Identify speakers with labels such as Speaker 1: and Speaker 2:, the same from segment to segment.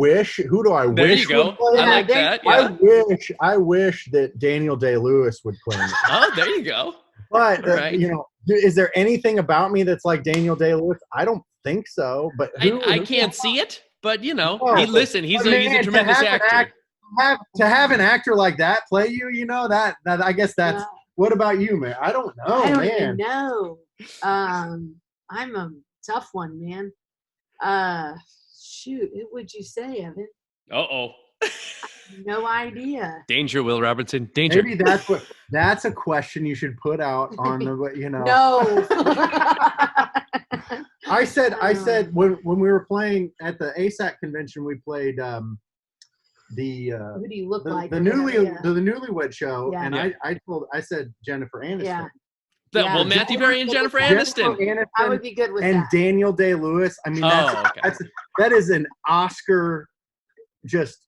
Speaker 1: wish? Who do I
Speaker 2: There
Speaker 1: wish?
Speaker 2: you go.
Speaker 1: would play
Speaker 2: I
Speaker 1: it?
Speaker 2: like
Speaker 3: Yeah,
Speaker 2: that.
Speaker 1: I
Speaker 2: Yeah.
Speaker 1: wish I wish that Daniel Day Lewis would play me.
Speaker 2: Oh, there you go.
Speaker 1: But uh,
Speaker 2: Right.
Speaker 1: you know, is there anything about me that's like Daniel Day Lewis? I don't think so. But
Speaker 2: I,
Speaker 1: who,
Speaker 2: I
Speaker 1: who-
Speaker 2: can't see it, but you know,
Speaker 1: Oh,
Speaker 2: he, listen, he's a, he's
Speaker 1: man,
Speaker 2: a
Speaker 1: to
Speaker 2: tremendous
Speaker 1: have an
Speaker 2: actor.
Speaker 1: act- have, to have an actor like that play you. You know that that I guess that's. What about you, man? I don't know,
Speaker 3: I don't even
Speaker 1: man.
Speaker 3: know. Um, I'm a tough one, man. Uh, shoot, who would you say, Evan?
Speaker 2: Uh oh.
Speaker 3: No idea.
Speaker 2: Danger, Will Robertson. Danger.
Speaker 1: Maybe that's what. That's a question you should put out on the. You know.
Speaker 3: No.
Speaker 1: I said I
Speaker 3: Oh.
Speaker 1: said when when we were playing at the ASAC convention, we played um, the uh,
Speaker 3: Who do you look
Speaker 1: the,
Speaker 3: like?
Speaker 1: the
Speaker 3: or
Speaker 1: newly
Speaker 3: whatever, yeah.
Speaker 1: the, newlywed show,
Speaker 3: Yeah.
Speaker 1: and
Speaker 2: Yeah.
Speaker 1: I I told I said Jennifer Aniston,
Speaker 3: Yeah.
Speaker 2: That-
Speaker 3: yeah.
Speaker 2: Well, Matthew Berry and Jennifer
Speaker 1: Jennifer
Speaker 2: Aniston.
Speaker 3: I
Speaker 1: Aniston
Speaker 3: would be good with
Speaker 1: and
Speaker 3: that.
Speaker 1: Daniel Day Lewis. I mean, that's,
Speaker 2: Oh, okay.
Speaker 1: that's that is an Oscar just.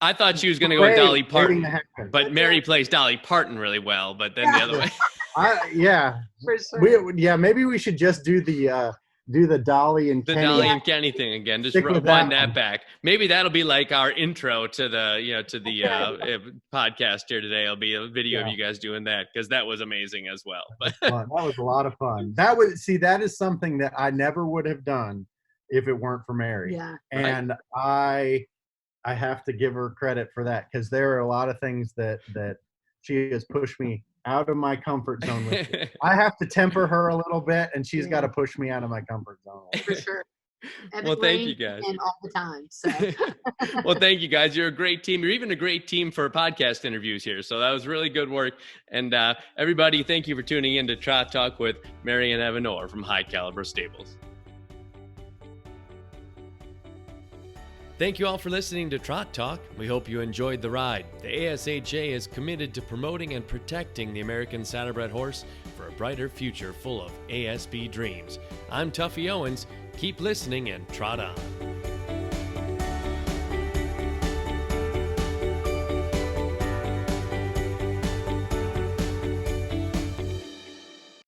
Speaker 2: I thought she was going to go with
Speaker 1: way
Speaker 2: Dolly
Speaker 1: waiting
Speaker 2: Parton,
Speaker 1: to happen.
Speaker 2: but Mary plays Dolly Parton really well. But then the
Speaker 3: Yeah.
Speaker 2: other way,
Speaker 1: I, yeah,
Speaker 3: for sure.
Speaker 1: we yeah maybe we should just do the uh do the Dolly and
Speaker 2: the
Speaker 1: Kenny.
Speaker 2: Dolly
Speaker 3: Yeah.
Speaker 2: and Kenny thing again. Just
Speaker 1: Stick
Speaker 2: ru-
Speaker 1: with that
Speaker 2: wind that
Speaker 1: one.
Speaker 2: back. Maybe that'll be like our intro to the you know to the uh, uh, podcast here today. It'll be a video of
Speaker 1: Yeah.
Speaker 2: you guys doing that because that was amazing as well. But
Speaker 1: fun. That was a lot of fun. That was see, that is something that I never would have done if it weren't for Mary.
Speaker 3: yeah.
Speaker 2: Right.
Speaker 1: And I I have to give her credit for that because there are a lot of things that that she has pushed me out of my comfort zone with. I have to temper her a little bit and she's
Speaker 3: Yeah.
Speaker 1: got to push me out of my comfort zone.
Speaker 3: for sure. And
Speaker 2: well,
Speaker 3: it
Speaker 2: thank you
Speaker 3: rained
Speaker 2: guys.
Speaker 3: And all the time. So
Speaker 2: well, thank you guys. You're a great team. You're even a great team for podcast interviews here. So that was really good work. And uh, everybody, thank you for tuning in to Trot Talk with Mary and Evan Orr from High Caliber Stables. Thank you all for listening to Trot Talk. We hope you enjoyed the ride. The ASHA is committed to promoting and protecting the American Saddlebred horse for a brighter future full of ASB dreams. I'm Tuffy Owens. Keep listening and trot on.